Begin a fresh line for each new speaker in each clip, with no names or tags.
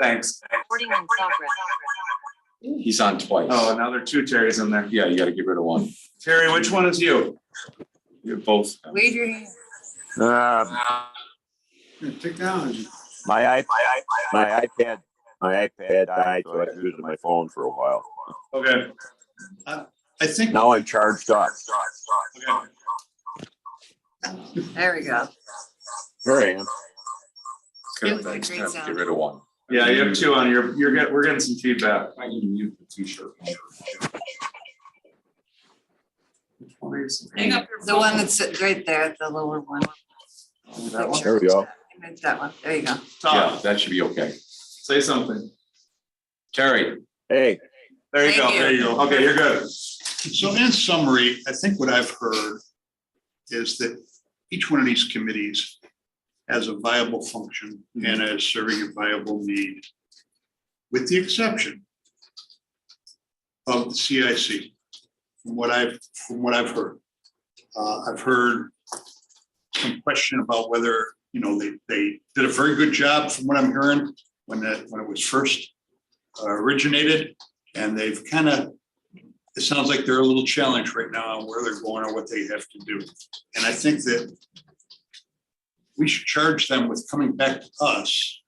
Thanks.
Recording in progress.
He's on twice.
Oh, now there are two Terrys in there.
Yeah, you gotta get rid of one.
Terry, which one is you?
You're both.
Wave your hand.
Uh,
Technology.
my iP- my iPad, my iPad died, so I was using my phone for a while.
Okay,
I think,
Now I'm charged up.
okay.
There we go.
Here I am.
It was a great
Get
sound.
rid of one.
Yeah, you have two on. You're, you're getting, we're getting some feedback.
I need to mute the t-shirt.
Which one is-
The one that's right there, the lower one.
That one?
There we go.
Image That one, there you go.
Yeah,
Ah.
Tom,
that should be okay.
say something.
Terry,
Hey,
There you go,
Thank you.
there you go. Okay, you're good.
so in summary, I think what I've heard is that each one of these committees has a viable function and is serving a viable need, with the exception of the CIC, from what I've, from what I've heard. Uh, I've heard some question about whether, you know, they, they did a very good job from what I'm hearing when that, when it was first uh, originated, and they've kind of it sounds like they're a little challenged right now on where they're going or what they have to do. And I think that we should charge them with coming back to us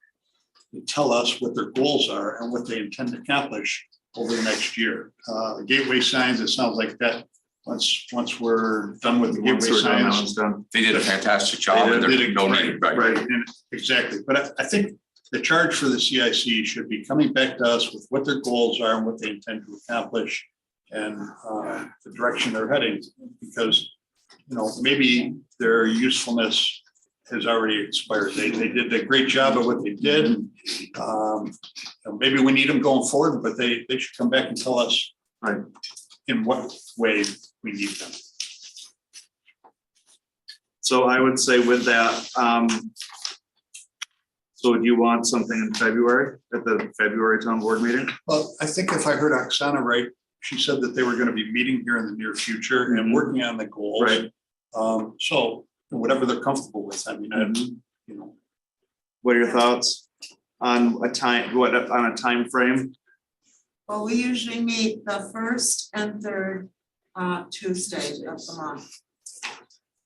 and tell us what their goals are and what they intend to accomplish over the next year. Uh, the gateway signs, it sounds like that, once, once we're done with the
Once
gateway
we're done, that
signs.
one's done.
they did a fantastic job. and
They did
they're
it-
donated,
Right,
right.
right, and- exactly. But I, I think the charge for the CIC should be coming back to us with what their goals are and what they intend to accomplish and uh, the direction they're heading, because, you know, maybe their usefulness has already expired. They, they did a great job at what they did. Um, and Maybe we need them going forward, but they, they should come back and tell us
Right.
in what way we need them.
So I would say with that, um, so do you want something in February, at the February town board meeting?
Well, I think if I heard Oksana right, she said that they were gonna be meeting here in the near future and working on the goals.
Mm-hmm. Right.
Um, so whatever they're comfortable with, I mean, I,
Mm-hmm.
you know,
What are your thoughts on a time, what, on a time frame?
Well, we usually meet the first and third uh Tuesday of the month.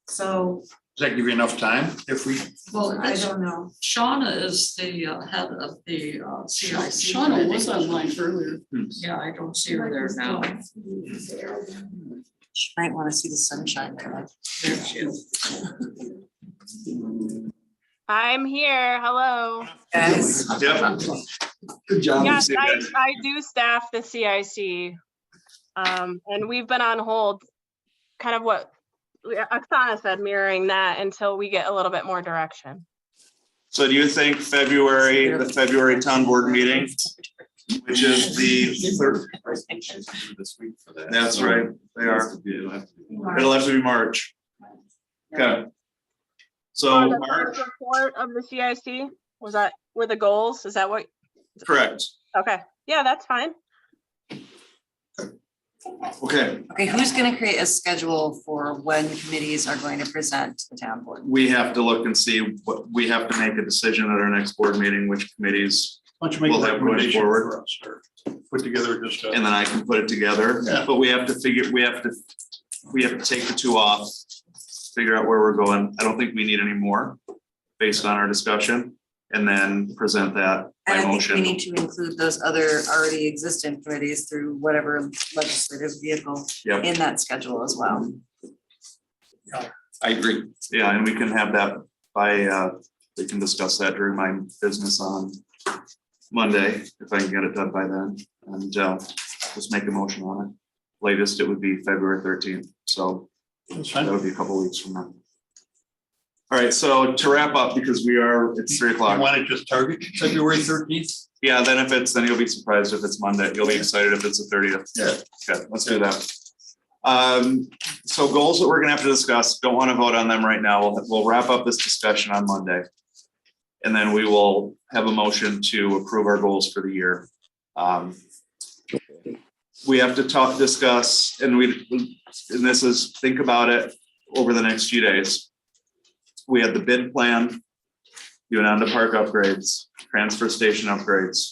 So,
does that give you enough time if we?
Well,
I
that's-
don't know,
Shauna is the uh, head of the uh, CIC.
Shauna
committee.
was online earlier.
Yeah, I don't see her there now.
She Might want to see the sunshine come up.
There she is.
I'm here. Hello.
Guys,
Yep. Good job.
Yes, I, I do staff the CIC. Um, and we've been on hold, kind of what Oksana said, mirroring that until we get a little bit more direction.
So do you think February, the February town board meeting, which is the third,
This week for that.
that's right, they are, it'll have to be March. Okay. So,
Or the
March,
first Report of the CIC, was that, were the goals, is that what,
correct,
okay, yeah, that's fine.
okay,
okay, who's gonna create a schedule for when committees are going to present to the town board?
we have to look and see what, we have to make a decision at our next board meeting, which committees,
Why don't you make
We'll
a
have going
recommendation
forward.
for us or put together just a.
and then I can put it together.
Yeah.
But we have to figure, we have to, we have to take the two off, figure out where we're going. I don't think we need any more based on our discussion, and then present that
And
by
I think we
motion.
need to include those other already existent committees through whatever legislative vehicle
Yep.
in that schedule as well.
I agree.
Yeah, and we can have that by, uh, we can discuss that during my business on Monday, if I can get it done by then. And, uh, just make a motion on it. Latest, it would be February thirteenth, so
That's fine.
that would be a couple weeks from now. All right, so to wrap up, because we are, it's three
You
o'clock.
want to just target February thirteenth?
Yeah, then if it's, then you'll be surprised if it's Monday. You'll be excited if it's the thirtieth.
Yeah.
Okay, let's do that. Um, so goals that we're gonna have to discuss, don't wanna vote on them right now. We'll, we'll wrap up this discussion on Monday. And then we will have a motion to approve our goals for the year. Um, We have to talk, discuss, and we, and this is, think about it over the next few days. We had the bid plan Unanda Park upgrades, transfer station upgrades.